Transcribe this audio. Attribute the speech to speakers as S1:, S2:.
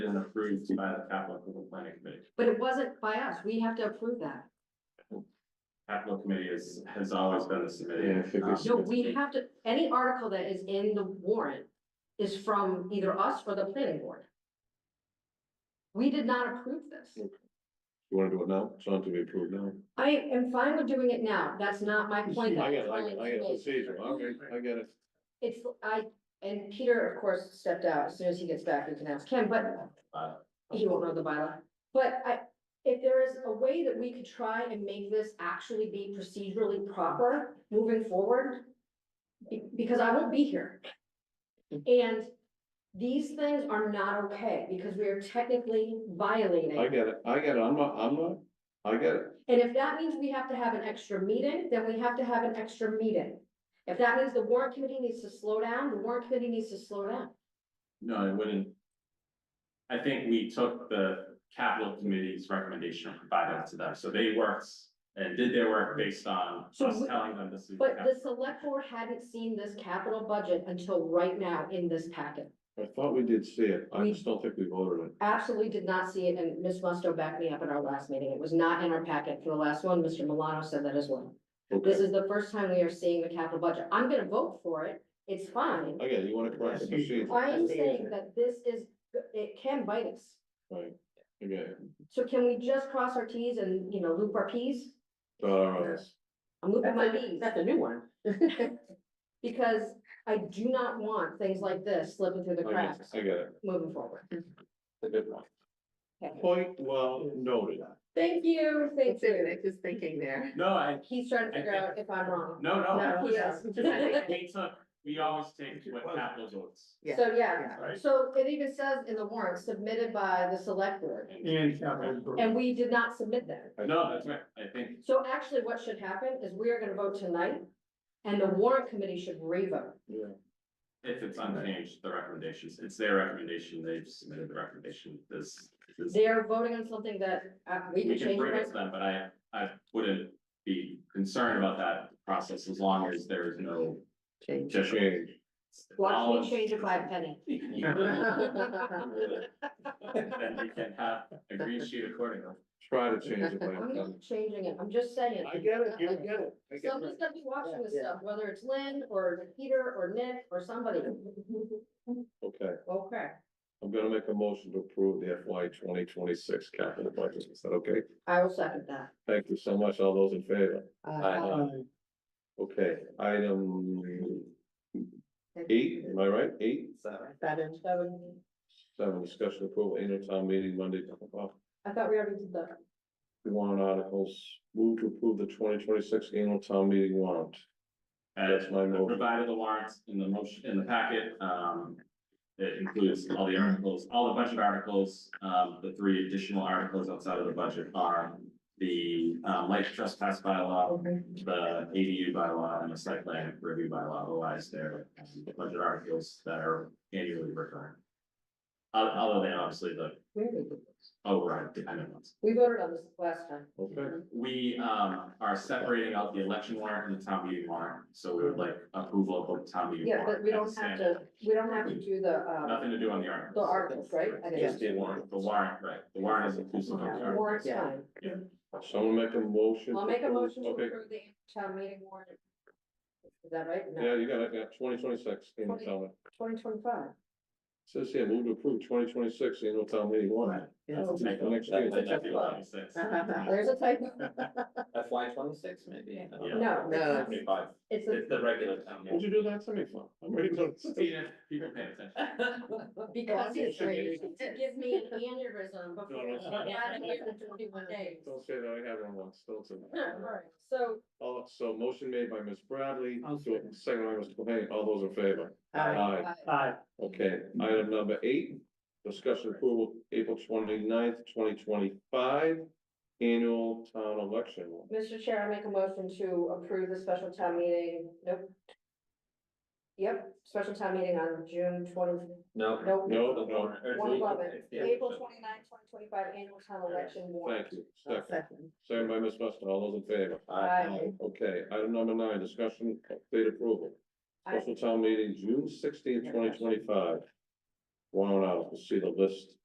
S1: approved by the capital improvement planning committee.
S2: But it wasn't by us, we have to approve that.
S1: Capital committee is, has always been the uh, submitting.
S3: Yeah, I think it's-
S2: No, we have to, any article that is in the warrant is from either us or the planning board. We did not approve this.
S3: You wanna do it now? It's not to be approved now.
S2: I am fine with doing it now, that's not my
S3: I
S2: point.
S3: got,
S2: I'm
S3: it, I
S2: trying to
S3: got, I got,
S2: make.
S3: it's easier. okay, I get it.
S2: It's, I, and Peter, of course, stepped out, as soon as he gets back, we can ask him, but
S1: Uh,
S2: he won't know the bylaw. But I, if there is a way that we could try and make this actually be procedurally proper moving forward. be- because I won't be here. And these things are not okay, because we are technically violating.
S3: I get it, I get it, I'm not, I'm not, I get it.
S2: And if that means we have to have an extra meeting, then we have to have an extra meeting. If that means the warrant committee needs to slow down, the warrant committee needs to slow down.
S1: No, it wouldn't. I think we took the capital committee's recommendation and provided it to them, so they worked and did their work based on
S2: So
S1: us
S2: we-
S1: telling them this is.
S2: But the select board hadn't seen this capital budget until right now in this packet.
S3: I thought we did see it, I
S2: We-
S3: just don't think we voted it.
S2: Absolutely did not see it, and Ms. Musto backed me up at our last meeting. It was not in our packet for the last one. Mr. Milano said that as well. This
S3: Okay,
S2: is the first time we are seeing the capital budget. I'm gonna vote for it. It's fine.
S3: I get it, you wanna correct the procedure,
S2: I am saying that this is, it can bite us.
S3: right? I get it,
S2: So can we just cross our Ts and, you know, loop our Ps?
S3: all right.
S2: I'm looping my Ps.
S4: That's a new one.
S2: Because I do not want things like this slipping through the
S4: Oh,
S3: I get,
S2: cracks
S3: I get it.
S2: moving forward.
S3: A good one.
S2: Okay.
S3: Point well noted.
S2: Thank you, thank
S4: It's in,
S2: you.
S4: it's just thinking there.
S1: No, I,
S2: He's trying to figure out if I'm wrong.
S1: no, no.
S2: No,
S1: I-
S2: yes.
S1: We took, we always take what capital votes,
S4: Yeah.
S2: So, yeah,
S4: Yeah.
S1: right?
S2: so it even says in the warrant submitted by the select board,
S1: And capital.
S2: and we did not submit that.
S1: No, that's right, I think,
S2: So actually, what should happen is we are gonna vote tonight, and the warrant committee should revote.
S3: Yeah.
S1: if it's unchanged, the recommendations, it's their recommendation, they've submitted the recommendation, this. this-
S2: They are voting on something that, uh,
S1: We
S2: we can
S1: can
S2: change.
S1: bring it
S2: it.
S1: to them, but I, I wouldn't be concerned about that process as long as there is no.
S4: Change.
S3: Change.
S2: Watch me change it by a penny.
S1: Then we can have a green sheet accordingly.
S3: Try to change it. by
S2: I'm
S3: then.
S2: not changing it, I'm just saying.
S3: I get it, you get it. I get
S2: Somebody's
S3: it.
S2: gonna be watching this
S4: Yeah.
S2: stuff, whether it's Lynn or Peter or Nick or somebody.
S3: Okay,
S2: Okay,
S3: I'm gonna make a motion to approve the FY twenty twenty-six capital budget. Is that okay?
S2: I will second that.
S3: Thank you so much, all those in favor.
S4: Uh,
S3: Okay, item eight, am I right? Eight,
S4: That is,
S2: Seven,
S3: seven, discussion approval, annual town meeting Monday.
S2: I thought we already did that.
S3: Warrant articles, move to approve the twenty twenty-six annual town meeting warrant.
S1: As
S3: That's my motion.
S1: Uh, provided the warrants in the motion, in the packet, um. It includes all the articles, all the budget articles, um, the three additional articles outside of the budget are. The, um, light trespass
S2: Oh,
S1: bylaw, the ADU bylaw and the site plan review bylaw, otherwise they're um, budget articles that are annually recurring. Other, other than obviously the
S2: We already did this.
S1: override dependent ones.
S2: We voted on this last time.
S3: Okay,
S1: We, um, are separating out the election warrant and the town meeting warrant, so we would like approval of both the town meeting
S2: Yeah,
S1: warrant.
S2: but we don't
S1: and
S2: have
S1: stand-
S2: to, we don't have to do the, um,
S1: Nothing to do on the articles.
S2: the articles, right? I
S1: Just
S2: didn't-
S1: the warrant, the warrant, right, the warrant is inclusive of the
S2: Yeah,
S1: article.
S2: Warrant's
S4: Yeah.
S2: fine.
S3: someone make a motion.
S2: I'll make a motion to
S3: Okay,
S2: approve the town meeting warrant. Is that right?
S3: yeah, you got it, yeah, twenty twenty-six annual town. meeting.
S2: Twenty twenty-five.
S3: Says here, move to approve twenty twenty-six annual town meeting warrant.
S4: yes.
S1: Make a-
S3: Next
S1: that-
S3: year.
S1: that'd be eleven six.
S2: There's a typo.
S5: FY twenty-six maybe?
S1: Yeah.
S2: No,
S4: No.
S2: it's-
S5: Twenty-five,
S2: it's a
S5: it's the regular town.
S3: Would you do that to me for? I'm ready to.
S1: See if people pay attention.
S2: Because it's
S3: Oh, I
S2: raised,
S3: see.
S2: to give me an aneurysm before
S3: No, no,
S2: I
S3: it's not.
S2: got it here for twenty-one days.
S3: Don't say that, I had one once, don't say that.
S2: Alright, So,
S3: Oh, so motion made by Ms. Bradley,
S6: I'll
S3: so second by Mr. Cohen, all those in favor?
S4: Uh,
S3: Aye.
S6: Aye.
S3: Okay, item number eight, discussion approval, April 29th, twenty twenty-five, annual town election.
S2: Mr. Chair, I make a motion to approve the special town meeting, nope. Yep, special town meeting on June twenty,
S5: No.
S2: nope.
S3: No,
S5: The
S3: no,
S5: warrant, or it's
S2: One
S5: the-
S2: eleven,
S5: it's the
S2: April
S5: actual-
S2: 29, twenty twenty-five annual town election warrant.
S3: thank you,
S4: I'll
S3: second,
S4: second.
S3: second by Ms. Musto, all those in favor?
S2: Aye.
S3: Okay, item number nine, discussion update approval,
S2: Aye.
S3: special town meeting, June 16th, twenty twenty-five. One out, we'll see the list